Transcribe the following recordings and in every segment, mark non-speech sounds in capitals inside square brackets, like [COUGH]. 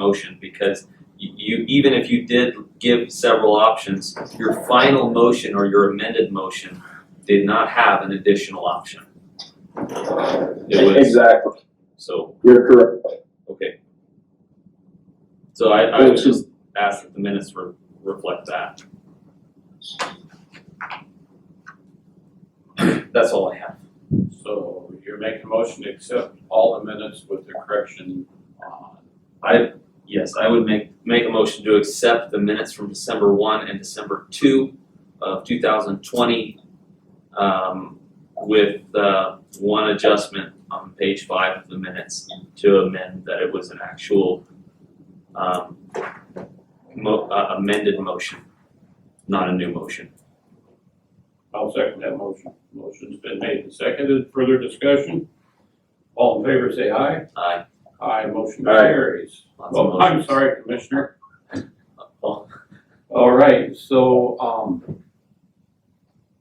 motion because you- you, even if you did give several options, your final motion or your amended motion did not have an additional option. It was, Exactly, so, you're correct. okay. So I, I would Which just is, ask that the minutes re- reflect that. That's all I have. So you're making a motion to accept all the minutes with the correction on, Yes, I would make, make a motion to accept the minutes from December one and December two of two thousand twenty. Um, with, uh, one adjustment on page five of the minutes to amend that it was an actual, um, mo- uh, amended motion, not a new motion. I'll second that motion. Motion's been made and seconded, further discussion? All in favor, say aye. Aye, Aye, motion Aye. carries. lots of Well, I'm motions. Oh. sorry, Commissioner. Well, All right, so, um,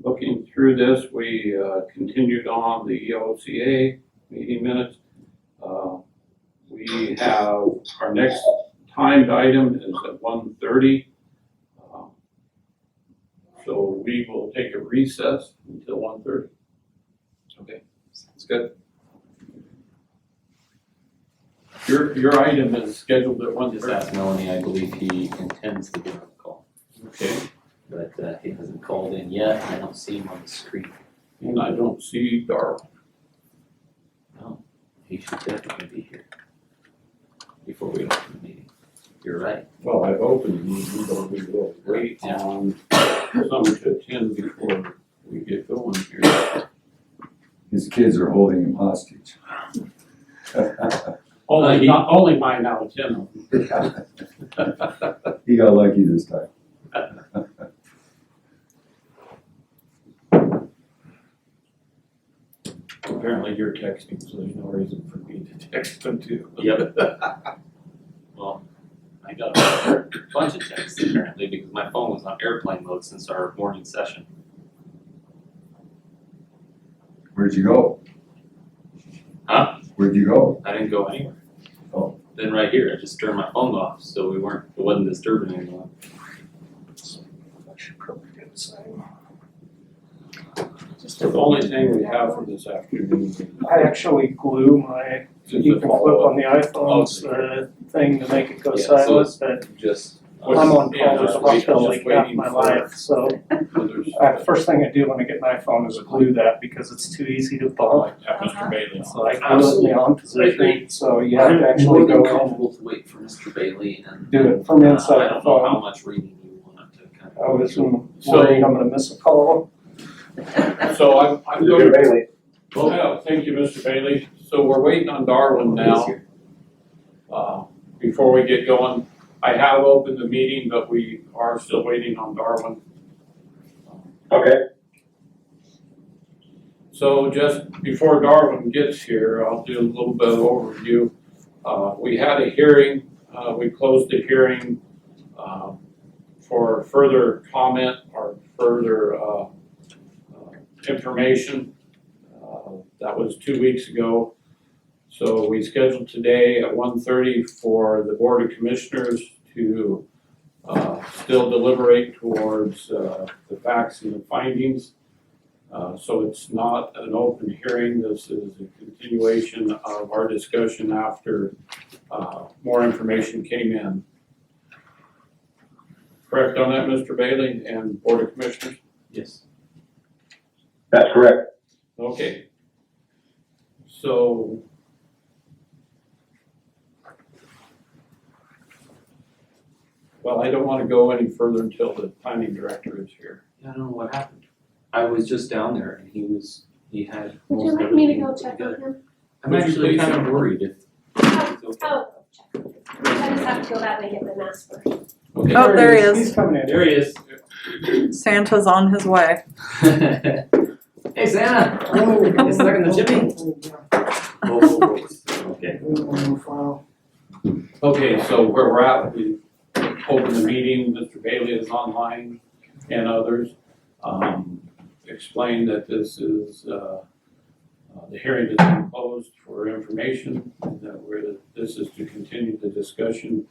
looking through this, we, uh, continued on the E EOCA meeting minutes. Uh, We have, our next timed item is at one thirty. Um, So we will take a recess until one thirty. It's good. Your, your item is scheduled at one Just thirty. ask Melanie, I believe he intends to give a call, Okay, but uh, he hasn't called in yet, I don't see him on the screen. and I don't see Darrell. He should definitely be here before we open the meeting. You're right. Well, I've opened, you don't be Wait on someone to attend before we get going here. His kids are holding him hostage. Uh, Only, he- not, only mine out of ten. He got lucky this time. Apparently you're texting, so there's no reason for me to text them too. Yep. Well, I got a bunch of texts apparently because my phone was on airplane mode since our morning session. Where'd you go? Huh? Where'd you go? I didn't go anywhere. Oh. Then right here, I just turned my phone off, so we weren't, it wasn't disturbing anyone. It's the only thing we have for this afternoon. I actually glue my, you can flip on the iPhones, Oh, the thing to make it go Yeah, so silent, but Just. uh, I'm on yeah, call just we- about till just like half waiting my for- life, so. Others. I, first thing I do when I get my phone is glue that because it's too easy to bump. Like that, Mr. Bailey. It's like, I'm in the on position, so you have to actually More than go comfortable to wait for Mr. Bailey and. uh, and do it from I inside the don't know how phone. Oh. much reading you want to kind of. I was So- [LAUGHS] worried I'm gonna miss a call. So I'm, I'm going to, Well- Yeah, thank you, Mr. Bailey. So we're waiting on Darwin now. Uh, Before we get going, I have opened the meeting, but we are still waiting on Darwin. Okay. So just before Darwin gets here, I'll do a little bit of overview. Uh, we had a hearing, uh, we closed the hearing, uh, for further comment or further, uh, uh, information. Uh, That was two weeks ago. So we scheduled today at 1:30 for the Board of Commissioners to, uh, still deliberate towards, uh, the facts and the findings. Uh, so it's not an open hearing, this is a continuation of our discussion after, uh, more information came in. Correct on that, Mr. Bailey and Board of Commissioners? Yes. That's correct. Okay. So. Well, I don't wanna go any further until the planning director is here. Yeah, I don't know what happened. I was just down there and he was, he had. Would you most like me to everything go check on together. him? I'm Would you actually please? kind of worried if. Oh, it's okay. oh, check. I just have to go that way and get my mask first. Okay. Oh, there he is. He's coming in. There he is. Santa's on his way. [LAUGHS] Hey Santa, Oh. you stuck in the [LAUGHS] chimney? Whoa, whoa, whoa. Okay. Okay, so where we're at, we opened the meeting, Mr. Bailey is online and others. Um, explained that this is, uh, uh, Uh, The hearing is closed for information that we're, this is to continue the discussion